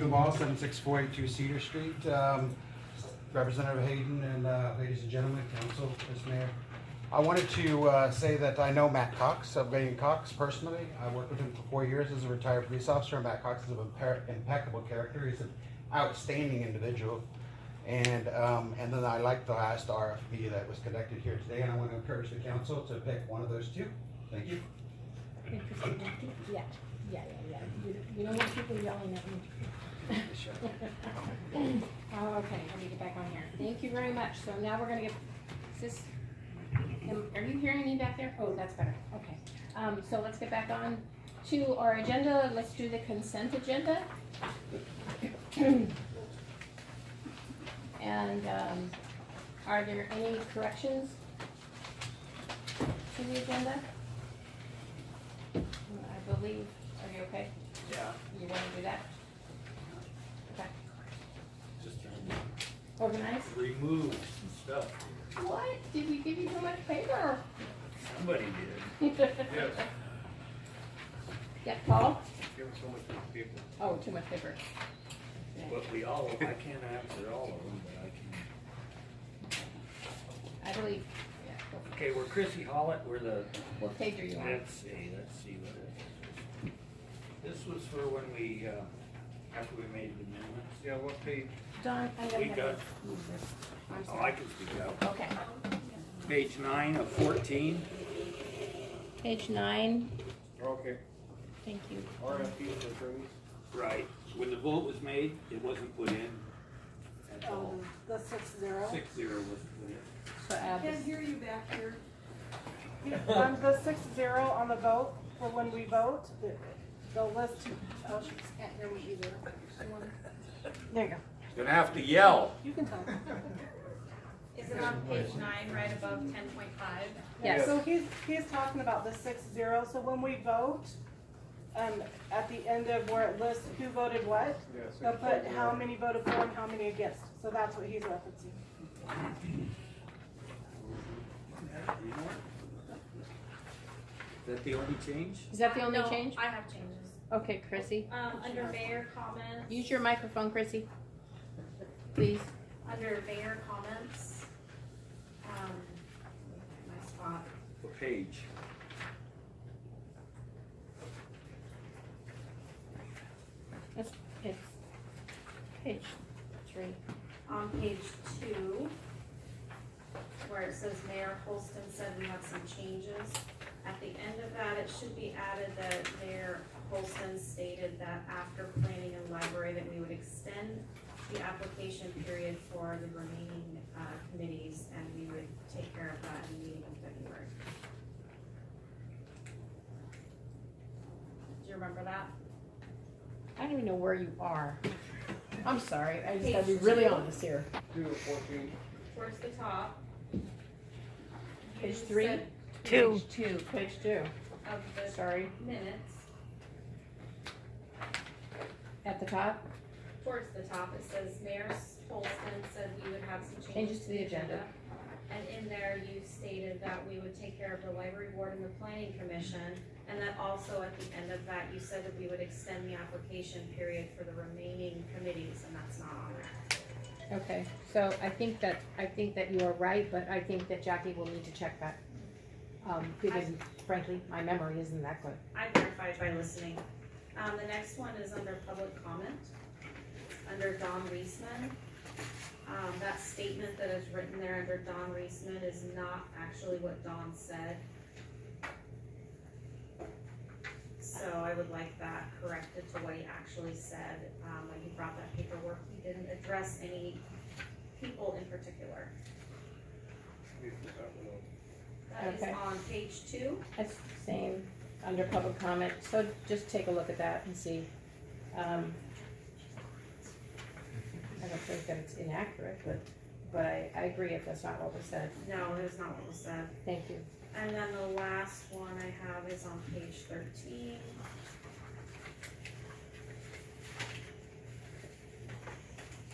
Duval, 76482 Cedar Street. Um, Representative Hayden and uh, ladies and gentlemen, council, Ms. Mayor. I wanted to uh, say that I know Matt Cox of Gay and Cox personally. I worked with him for four years as a retired police officer. Matt Cox is an impe- impeccable character. He's an outstanding individual. And, um, and then I like the last RFP that was conducted here today, and I want to encourage the council to pick one of those two. Thank you. Interesting. Yeah, yeah, yeah, yeah. You- You don't want people yelling at me. Oh, okay, let me get back on here. Thank you very much. So now we're gonna get, is this, am- are you hearing me back there? Oh, that's better, okay. Um, so let's get back on to our agenda. Let's do the consent agenda. And, um, are there any corrections to the agenda? I believe, are you okay? Yeah. You wanna do that? Okay, Just trying organize? to remove stuff. What? Did we give you so much paper? Somebody did. Yes. Yeah, Paul? Give us so much people. Oh, too much paper. Yeah. But we all, I can't answer all of them, but I can. I believe, yeah, go- Okay, we're Chrissy Hollett, we're the, what page are you on? let's see, let's see what it is. This was for when we, uh, after we made the amendments. Yeah, what page? Don, I don't We have got- it. I'm Oh, I sorry. can speak out. Okay, Page nine of fourteen. page nine, Okay. thank you. RFP for trees? Right, when the vote was made, it wasn't put in. That's all. Um, the six zero. Six zero wasn't put in. So add Can't this, hear you back here. Um, the six zero on the vote, for when we vote, the- the list, oh, she can't hear me either. There you go. Gonna have to yell. You can tell. Is it on page nine, right above ten point five? yes, So he's, he's talking about the six zero, so when we vote, um, at the end of where it lists who voted what, they'll put how many voted for and how many against, so that's what he's referencing. Is that the only change? is that the only No, change? I have changes. Okay, Chrissy, Um, under mayor comments. use your microphone, Chrissy. Please, Under mayor comments. Um, my spot. What page? it's, it's page three. On page two, where it says Mayor Holston said we have some changes. At the end of that, it should be added that Mayor Holston stated that after planning and library, that we would extend the application period for the remaining, uh, committees, and we would take care of that in the meeting in February. Do you remember that? I don't even know where you are. I'm sorry, I just gotta be really honest here. Towards the top. Page You three? said Two. Two, page two, Of the sorry, minutes. at the top, Towards the top, it says Mayor Holston said we would have some Changes changes to the agenda. And in there, you stated that we would take care of the library board and the planning commission. And that also at the end of that, you said that we would extend the application period for the remaining committees, and that's not on there. okay, so I think that, I think that you are right, but I think that Jackie will need to check that. Um, because frankly, my memory isn't that good. I verified by listening. Um, the next one is under public comment, under Don Reisman. Um, that statement that is written there under Don Reisman is not actually what Don said. So I would like that corrected to what he actually said, um, when he brought that paperwork, he didn't address any people in particular. That is Okay. on page two. That's the same, under public comment, so just take a look at that and see. Um, I don't think that it's inaccurate, but, but I, I agree if that's not what was said, No, it is not what was said. thank you. And then the last one I have is on page thirteen. Whereabouts?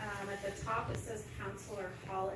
Um, at the top, it says Counselor Hall